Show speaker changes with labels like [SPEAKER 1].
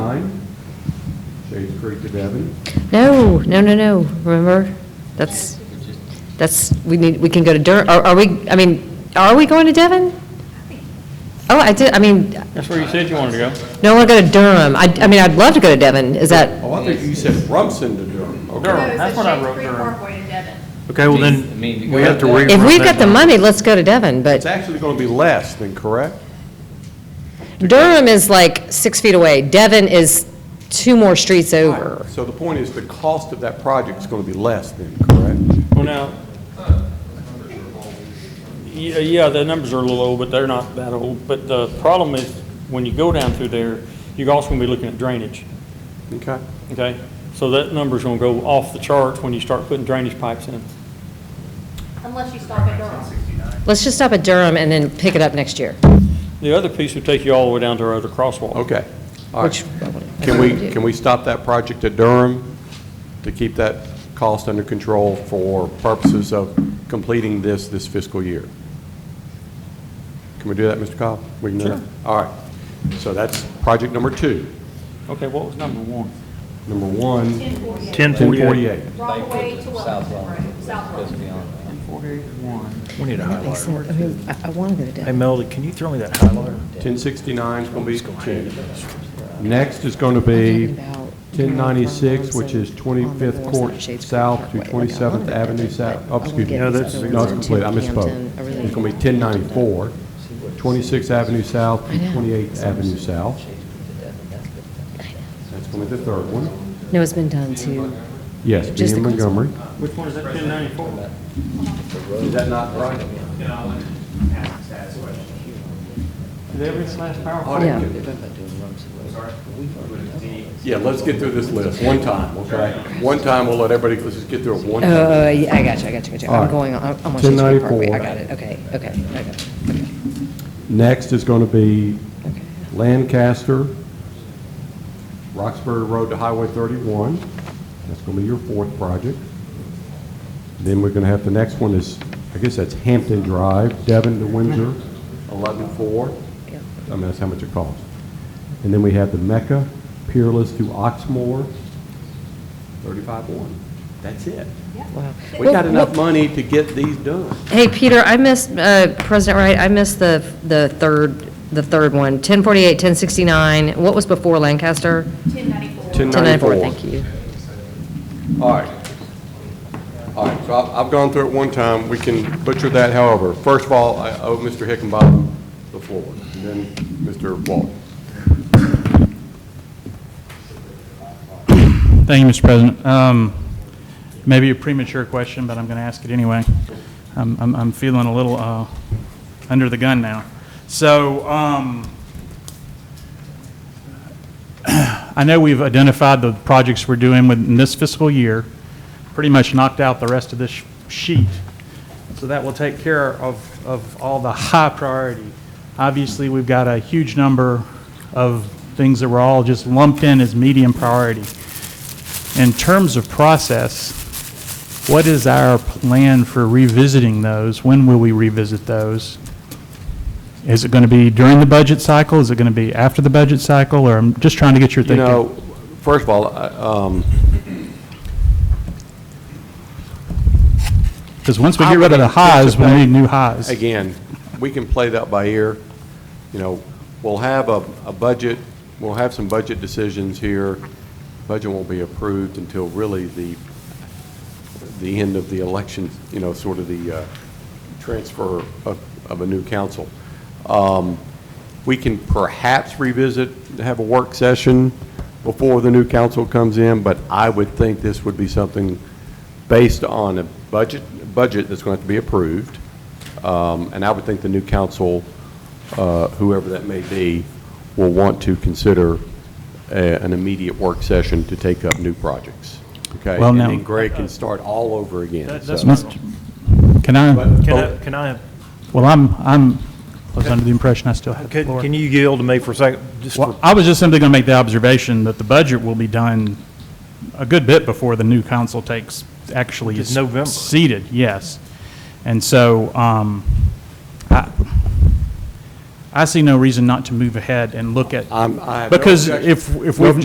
[SPEAKER 1] Shades Creek to Devon.
[SPEAKER 2] No, no, no, no, remember? That's, that's, we need, we can go to Dur, are are we, I mean, are we going to Devon? Oh, I did, I mean,
[SPEAKER 3] That's where you said you wanted to go.
[SPEAKER 2] no, we're going to Durham. I, I mean, I'd love to go to Devon, is that,
[SPEAKER 1] Oh, I think you said Rumson to Durham. Okay.
[SPEAKER 3] Durham.
[SPEAKER 4] No,
[SPEAKER 3] That's
[SPEAKER 4] it's
[SPEAKER 3] what I
[SPEAKER 4] a
[SPEAKER 3] wrote
[SPEAKER 4] Shade Creek
[SPEAKER 3] there.
[SPEAKER 4] Parkway to Devon.
[SPEAKER 3] Okay, well
[SPEAKER 5] I
[SPEAKER 3] then,
[SPEAKER 5] mean,
[SPEAKER 3] we have to
[SPEAKER 5] go-
[SPEAKER 3] re.
[SPEAKER 2] if we've got the money, let's go to Devon,
[SPEAKER 1] It's
[SPEAKER 2] but
[SPEAKER 1] actually going to be less than correct?
[SPEAKER 2] Durham is like six feet away. Devon is two more streets over.
[SPEAKER 1] So the point is, the cost of that project is going to be less than correct?
[SPEAKER 3] Well, now, yeah, yeah, the numbers are a little old, but they're not that old. But the problem is, when you go down through there, you're also gonna be looking at drainage,
[SPEAKER 1] Okay?
[SPEAKER 3] okay? So that number's gonna go off the charts when you start putting drainage pipes in.
[SPEAKER 4] Unless you stop at Durham.
[SPEAKER 2] Let's just stop at Durham and then pick it up next year,
[SPEAKER 3] The other piece would take you all the way down to our other crosswalk.
[SPEAKER 1] Okay. All
[SPEAKER 2] which.
[SPEAKER 1] right. Can we, can we stop that project at Durham to keep that cost under control for purposes of completing this, this fiscal year? Can we do that, Mr. Cobb? We can do that?
[SPEAKER 3] Sure.
[SPEAKER 1] All right. So that's project number two.
[SPEAKER 3] Okay, what was number one?
[SPEAKER 1] Number one,
[SPEAKER 4] 1048.
[SPEAKER 1] 1048.
[SPEAKER 4] Rockaway to Wilson Road, South
[SPEAKER 5] Let's be
[SPEAKER 4] Wilson.
[SPEAKER 5] honest.
[SPEAKER 6] We need a highlighter.
[SPEAKER 2] I want to go to
[SPEAKER 6] Hey, Melody, can you throw me that highlighter?
[SPEAKER 1] 1069 is going to be two. Next is going to be 1096, which is 25th Court South to 27th Avenue South, oh, excuse me.
[SPEAKER 2] No,
[SPEAKER 1] that's. No, it's complete, I misspoke. It's going to be 1094, 26th Avenue South to 28th Avenue South. That's going to be the third one.
[SPEAKER 2] No, it's been done too.
[SPEAKER 1] Yes,
[SPEAKER 2] Just
[SPEAKER 1] being
[SPEAKER 2] the council.
[SPEAKER 1] Montgomery.
[SPEAKER 3] Which one is that, ten ninety-four?
[SPEAKER 1] Is that not right?
[SPEAKER 3] Did every last power?
[SPEAKER 2] Yeah.
[SPEAKER 1] Yeah, let's get through this list one time, okay? One time, we'll let everybody, let's just get through it one time.
[SPEAKER 2] Oh, yeah, I got you, I got you, I got you.
[SPEAKER 1] All
[SPEAKER 2] I'm
[SPEAKER 1] right.
[SPEAKER 2] going, on- I'm on Shade Creek Parkway.
[SPEAKER 1] 1094.
[SPEAKER 2] I got it, okay, okay, I got it, okay,
[SPEAKER 1] Next is going to be
[SPEAKER 2] okay.
[SPEAKER 1] Lancaster, Roxbury Road to Highway 31. That's going to be your fourth project. Then we're going to have, the next one is, I guess that's Hampton Drive, Devon to Windsor, 11-4.
[SPEAKER 2] Yeah.
[SPEAKER 1] I mean, that's how much it costs. And then we have the Mecca, Peerless to Oxmoor, 35-1. That's it.
[SPEAKER 2] Wow.
[SPEAKER 1] We
[SPEAKER 2] Well,
[SPEAKER 1] got enough
[SPEAKER 2] well,
[SPEAKER 1] money to get these done.
[SPEAKER 2] Hey, Peter, I missed, uh, President Wright, I missed the, the third, the third one, 1048, 1069, what was before Lancaster?
[SPEAKER 4] 1094.
[SPEAKER 2] 1094,
[SPEAKER 1] 1094.
[SPEAKER 2] thank you.
[SPEAKER 1] All right. All right, so I've, I've gone through it one time, we can butcher that however. First of all, I owe Mr. Hickenbottom the floor, and then Mr. Walton.
[SPEAKER 7] Thank you, Mr. President. Um, Maybe a premature question, but I'm going to ask it anyway. I'm- I'm I'm feeling a little uh, under the gun now. So um, I know we've identified the projects we're doing within this fiscal year, pretty much knocked out the rest of this sh- sheet. So that will take care of of all the high priority. Obviously, we've got a huge number of things that were all just lumped in as medium priority. In terms of process, what is our plan for revisiting those? When will we revisit those? Is it going to be during the budget cycle? Is it going to be after the budget cycle? Or I'm just trying to get your
[SPEAKER 1] You
[SPEAKER 7] thinking.
[SPEAKER 1] know, first of all, I, um,
[SPEAKER 7] Because once we get rid of the highs, we need new highs.
[SPEAKER 1] again, we can play that by ear. You know, we'll have a, a budget, we'll have some budget decisions here. Budget won't be approved until really the, the end of the election, you know, sort of the uh, transfer of, of a new council. Um, We can perhaps revisit, have a work session before the new council comes in, but I would think this would be something based on a budget, budget that's going to have to be approved. Um, And I would think the new council, uh, whoever that may be, will want to consider a- an immediate work session to take up new projects. Okay?
[SPEAKER 7] Well, now-
[SPEAKER 1] And then Greg can start all over again.
[SPEAKER 6] That-
[SPEAKER 1] so-
[SPEAKER 6] that's my-
[SPEAKER 7] Mr. Can I,
[SPEAKER 6] Can I, can I,
[SPEAKER 7] well, I'm, I'm, I was under the impression I still had the
[SPEAKER 6] can
[SPEAKER 7] floor.
[SPEAKER 6] can you yield to me for a second? Just for-
[SPEAKER 7] Well, I was just simply going to make the observation that the budget will be done a good bit before the new council takes, actually
[SPEAKER 6] Which is
[SPEAKER 7] is
[SPEAKER 6] November.
[SPEAKER 7] seated, yes. And so um, I I see no reason not to move ahead and look at,
[SPEAKER 1] I'm- I have no
[SPEAKER 7] because
[SPEAKER 1] objection.
[SPEAKER 7] if, if
[SPEAKER 1] No
[SPEAKER 7] we've